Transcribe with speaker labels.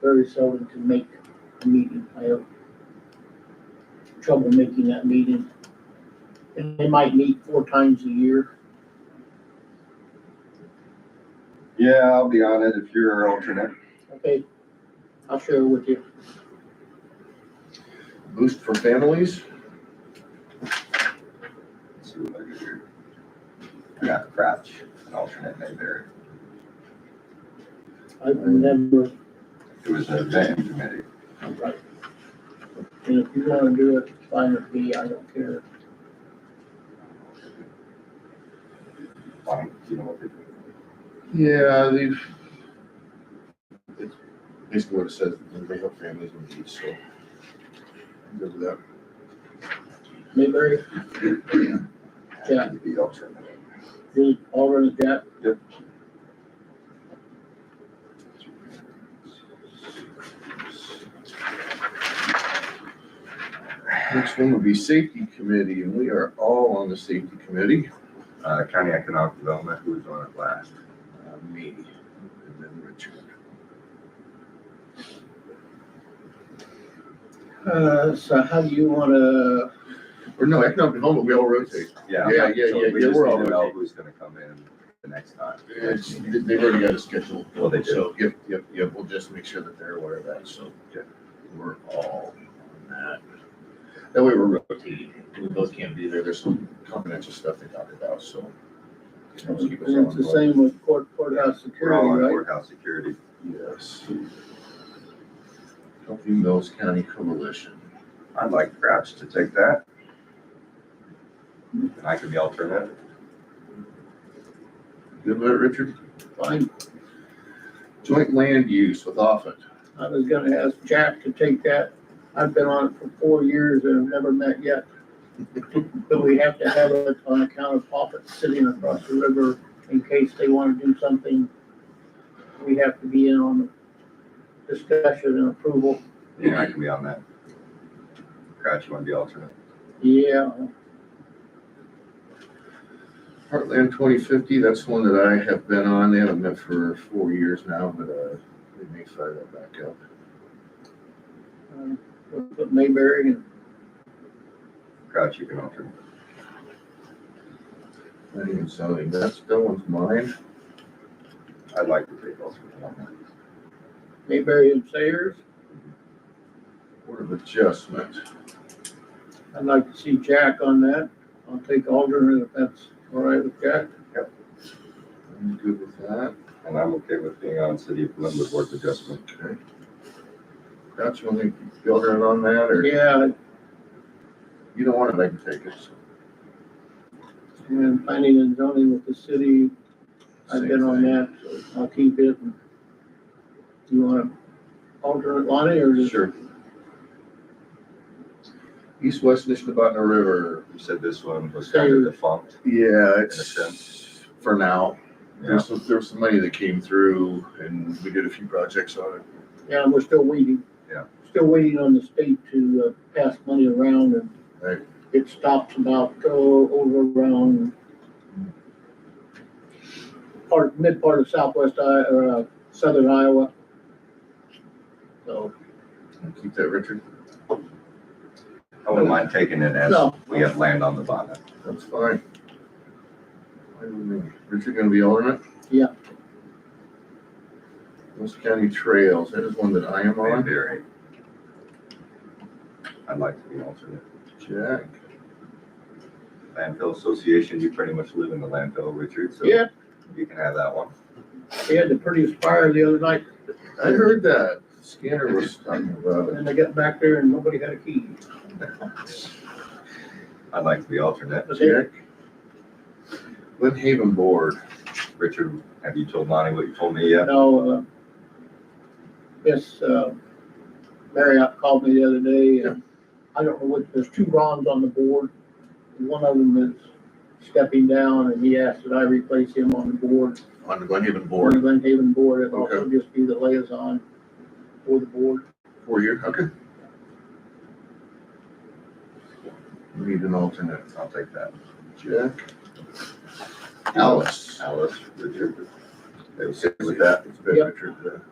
Speaker 1: very seldom can make a meeting. I have trouble making that meeting. And they might meet four times a year.
Speaker 2: Yeah, I'll be on it if you're alternate.
Speaker 1: Okay, I'll share with you.
Speaker 3: Boost for families?
Speaker 2: See what I can do. I got Crouch, an alternate name there.
Speaker 1: I've never,
Speaker 2: It was a vetting committee.
Speaker 1: and if you wanna do it, it's fine with me, I don't care.
Speaker 2: I don't, you know what they do.
Speaker 3: Yeah, they've. it's Basically what it says, they help families in need, so. I'm Good with that.
Speaker 1: Mayberry, Yeah.
Speaker 2: Happy to be alternate.
Speaker 1: you already got,
Speaker 3: Next one would be safety committee, and we are all on the safety committee.
Speaker 2: Uh, County Economic Development, who was on it last?
Speaker 3: Uh, Me, and then Richard.
Speaker 1: uh, so how do you wanna,
Speaker 3: Or no, economic development, we all rotate.
Speaker 2: Yeah.
Speaker 3: Yeah, yeah,
Speaker 2: So
Speaker 3: yeah,
Speaker 2: We
Speaker 3: yeah,
Speaker 2: just
Speaker 3: we're all
Speaker 2: need to know
Speaker 3: rotating.
Speaker 2: who's gonna come in the next time.
Speaker 3: It's, they've already got a schedule.
Speaker 2: Well, they do.
Speaker 3: So, yep, yep, yep, we'll just make sure that they're aware of that, so.
Speaker 2: Yeah.
Speaker 3: We're all on that. That way we're rotating, we both can't be there, there's some confidential stuff they talked about, so. Helps keep us
Speaker 1: and it's the
Speaker 3: on
Speaker 1: same with court, courthouse
Speaker 2: We're all on
Speaker 1: security, right?
Speaker 2: courthouse security.
Speaker 3: board. Yes. Healthy Mills County Coalition.
Speaker 2: I'd like Crouch to take that. And I can be alternate.
Speaker 3: Good with it, Richard?
Speaker 1: Fine,
Speaker 3: Joint land use with Offutt.
Speaker 1: I was gonna ask Jack to take that. I've been on it for four years and have never met yet. But we have to have it on account of Poppet sitting across the river in case they wanna do something. We have to be in on the discussion and approval.
Speaker 2: Yeah, I can be on that. Crouch, you wanna be alternate?
Speaker 1: Yeah,
Speaker 3: Heartland twenty fifty, that's one that I have been on, they haven't met for four years now, but, uh, they may fire that back up.
Speaker 1: um, we'll put Mayberry and
Speaker 2: Crouch, you can alternate.
Speaker 3: Planning and zoning, that's, that one's mine.
Speaker 2: I'd like to take alternate on that.
Speaker 1: Mayberry and Sayers.
Speaker 3: Board of Adjustment,
Speaker 1: I'd like to see Jack on that. I'll take alternate if that's all right with Jack.
Speaker 3: I'm good with that.
Speaker 2: And I'm okay with being on City of Glenwood Board of Adjustment.
Speaker 3: Okay. Crouch, you want to be alternate on that, or
Speaker 1: Yeah,
Speaker 3: you don't want it, I can take it. so.
Speaker 1: and planning and zoning with the city, I've been on
Speaker 3: Same
Speaker 1: that, so I'll keep it. You want to alternate Lonnie or
Speaker 3: thing.
Speaker 1: just?
Speaker 3: Sure. East West Nishnabotna River,
Speaker 2: You said this one was kind of defunct.
Speaker 3: yeah,
Speaker 2: sense.
Speaker 3: it's for now. There's some, there was some money that came through and we did a few projects on it.
Speaker 1: Yeah, we're still waiting.
Speaker 2: Yeah.
Speaker 1: Still waiting on the state to uh, pass money around and
Speaker 3: Right.
Speaker 1: it stops about, oh, over around part, mid part of southwest, I, or uh, southern Iowa. So,
Speaker 3: Keep that, Richard.
Speaker 2: I wouldn't mind taking it as
Speaker 1: No.
Speaker 2: we have land on the bottom.
Speaker 3: That's fine. Wait a minute. Richard gonna be alternate?
Speaker 1: Yeah.
Speaker 3: West County Trails, that is one that I am on.
Speaker 2: Mayberry. I'd like to be alternate.
Speaker 3: Jack,
Speaker 2: Landfill Association, you pretty much live in the landfill, Richard, so
Speaker 1: yeah,
Speaker 2: you can have that one.
Speaker 1: they had the prettiest fire the other night
Speaker 3: I heard that. Scanner was talking about it.
Speaker 1: and I got back there and nobody had a key.
Speaker 2: I'd like to be alternate.
Speaker 1: But they-
Speaker 3: Jack? Lynn Haven Board,
Speaker 2: Richard, have you told Lonnie what you told me yet?
Speaker 1: No, uh, yes, uh, Marriott called me the other day, and I don't know what, there's two Rons on the board. and One of them is stepping down, and he asked that I replace him on the board.
Speaker 3: on the Glen Haven
Speaker 1: On the
Speaker 3: Board,
Speaker 1: Glen Haven board, it'll also just be the liaison for the board.
Speaker 3: four year, okay. We Need an alternate.
Speaker 2: I'll take that.
Speaker 3: Jack? Alice.
Speaker 2: Alice, Richard, they were
Speaker 3: It's
Speaker 2: good with that?
Speaker 3: It's uh, been
Speaker 1: Yep.
Speaker 3: Richard,